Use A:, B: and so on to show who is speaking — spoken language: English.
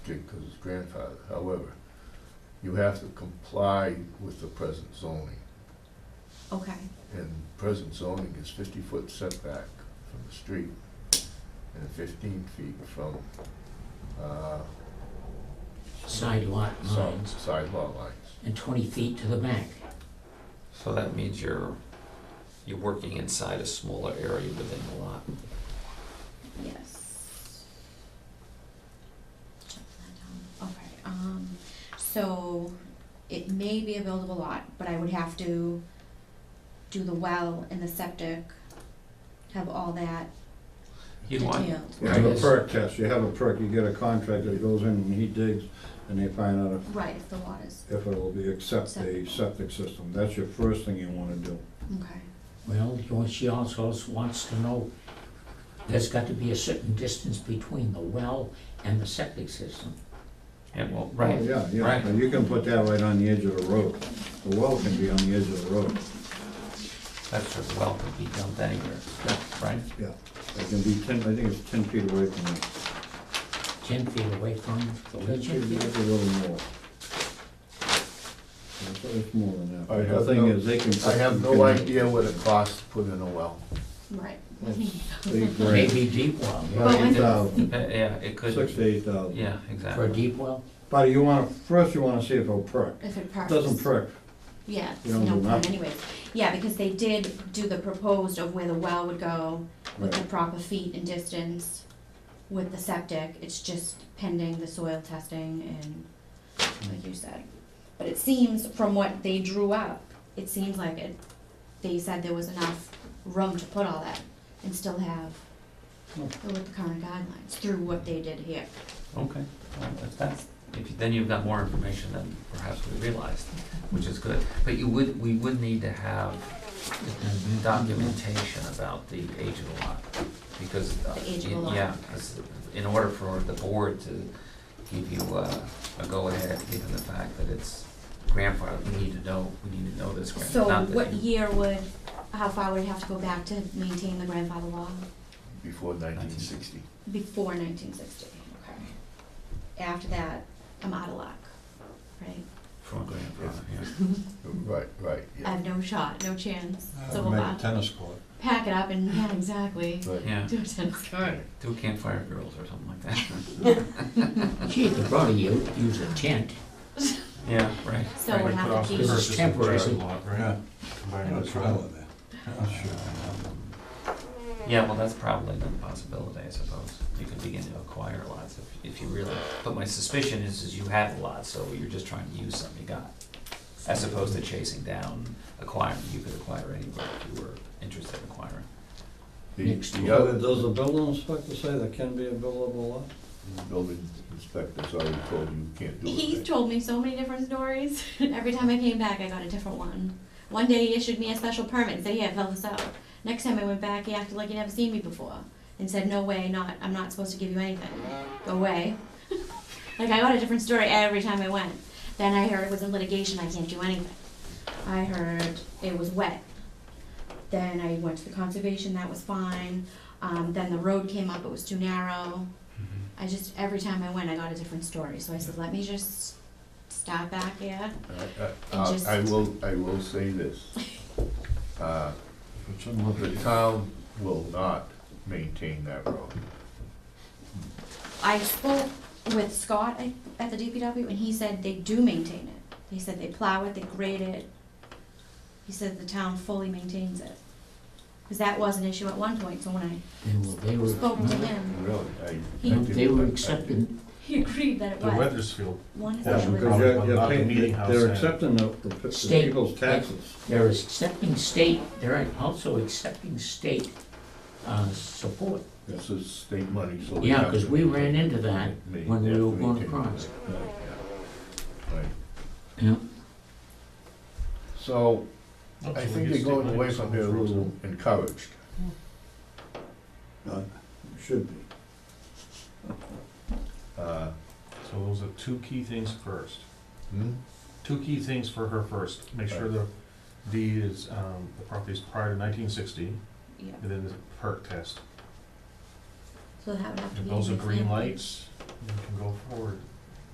A: because it's grandfathered. However, you have to comply with the present zoning.
B: Okay,
A: And present zoning is fifty-foot setback from the street and fifteen feet from, uh,
C: side lot
A: side,
C: lines,
A: side lot lines.
C: and 20 feet to the back.
D: So that means you're, you're working inside a smaller area within the lot.
B: yes. Check that down. Okay, um, so it may be a buildable lot, but I would have to do the well and the septic, have all that
D: You want,
B: detailed.
E: You have a perk test, you have a perk, you get a contractor that goes in and he digs, and they find out
B: Right, if the lot is,
E: if, if it will be, accept the septic system. That's your first thing you wanna do.
B: okay,
C: Well, you- she also wants to know, there's got to be a certain distance between the well and the septic system.
D: and well,
E: Oh,
D: right,
E: Yeah,
D: right.
E: yeah, and you can put that right on the edge of the road. The well can be on the edge of the road,
D: that's where the well could be dumped anywhere, right?
E: yeah. It can be ten, I think it's ten feet away from the,
C: 10 feet away from the
E: ten feet,
C: leaching
E: it's
C: field.
E: a little more. It's, it's more than
A: I
E: that. The
A: have
E: thing
A: no-
E: is, they can.
A: I have no idea what it costs to put in a well.
B: right.
E: It's Eight grand,
C: Maybe deep well,
E: about
B: Well, I-
E: eight thousand,
D: Uh, Yeah, it could,
E: six to eight thousand.
D: yeah,
C: for a
D: exactly.
C: deep well.
E: But you wanna, first you wanna see if it'll perk.
B: If it
E: It
B: perks.
E: Doesn't perk,
B: Yeah, it's
E: You don't
B: no
E: do
B: point
E: that.
B: anyways. Yeah, because they did do the proposed of where the well would go with the
E: Right.
B: proper feet and distance with the septic. It's just pending the soil testing and like you said. But it seems from what they drew up, it seems like it, they said there was enough room to put all that and still have
E: Hmm.
B: with the current guidelines through what they did here.
D: Okay, all right, that's that. If, you- then you've got more information than perhaps we realized, which is good. But you would, we would need to have documentation about the age of the lot, because. uh,
B: The age of the lot.
D: Yeah, 'cause in order for the board to give you uh, a go-ahead, given the fact that it's grandfathered, we need to know, we need to know this
B: So
D: grandfather.
B: what year would, how far would it have to go back to maintain the grandfather law?
A: Before nineteen sixty.
B: Before nineteen sixty, okay. After that, I'm out of luck, right?
D: From a grandfather, yeah.
A: Right, right,
B: I
A: yeah.
B: have no shot, no chance. So we'll
E: Make a
B: pa-
E: Uh, tennis court.
B: pack it up and, yeah, exactly.
A: Right.
D: Yeah,
B: Do a tennis court.
D: do campfire girls or something like that.
C: She could probably u- use a tent,
D: Yeah, right.
B: So we'll
D: right.
B: have to keep,
C: This is temporary.
F: Yeah. Combined with trailer there.
D: Yeah, well, that's probably the possibility, I suppose. You could begin to acquire lots if, if you really, but my suspicion is, is you have a lot, so you're just trying to use some you got. As opposed to chasing down acquiring, you could acquire anywhere if you were interested in acquiring.
A: The,
C: Next
A: the
C: door.
A: other
E: Does the building inspector say there can be a buildable lot?
A: building inspector's already told you you can't do it.
B: he's told me so many different stories. Every time I came back, I got a different one. One day he issued me a special permit and said, yeah, fill this out. Next time I went back, he acted like he'd never seen me before and said, no way, not, I'm not supposed to give you anything. Go away. Like I got a different story every time I went. Then I heard it was in litigation, I can't do anything. I heard it was wet. Then I went to the conservation, that was fine. Um, then the road came up, it was too narrow. I just, every time I went, I got a different story, so I said, let me just stop back here.
A: I- I-
B: And just-
A: I will, I will say this. Uh,
E: It's in what
A: The
E: they-
A: town will not maintain that road.
B: I spoke with Scott at- at the DPW, and he said they do maintain it. He said they plow it, they grade it. He said the town fully maintains it. Because that was an issue at one point, so when
C: and they
B: I spoke to
C: were,
B: him,
A: Really, I- I. didn't-
C: they
A: I-
C: were
A: I-
C: accepted.
B: he agreed that it
F: The
B: was.
F: Weathersfield,
B: One is
E: Yeah,
B: that it
E: because
B: was,
E: you're, you're
F: Not the
E: paying,
F: meeting house
E: they're
F: and-
E: accepting the, the p- the
C: State.
E: people's taxes.
C: They're accepting state, they're also accepting state uh, support.
A: This is state money, so. they
C: Yeah,
A: have
C: 'cause
A: to-
C: we ran into that
A: they-
C: when we
A: they have
C: were
A: to
C: going
A: maintain
C: across.
A: that, yeah. Right.
C: Yeah.
A: So
F: Look,
A: I
F: so we
A: think
F: get
A: they're
F: state
A: going
F: money
A: away
F: for
A: from
F: some
A: here a
F: frozen-
A: little encouraged.
E: Uh, Should be.
A: Uh,
F: So those are two key things first.
A: hmm?
F: Two key things for her first. Make sure the deed is, um, the property is prior to nineteen sixty,
B: yeah,
F: and then the perk test.
B: so that would have to
F: If
B: be.
F: those are
B: in the
F: green
B: family.
F: lights, you can go forward.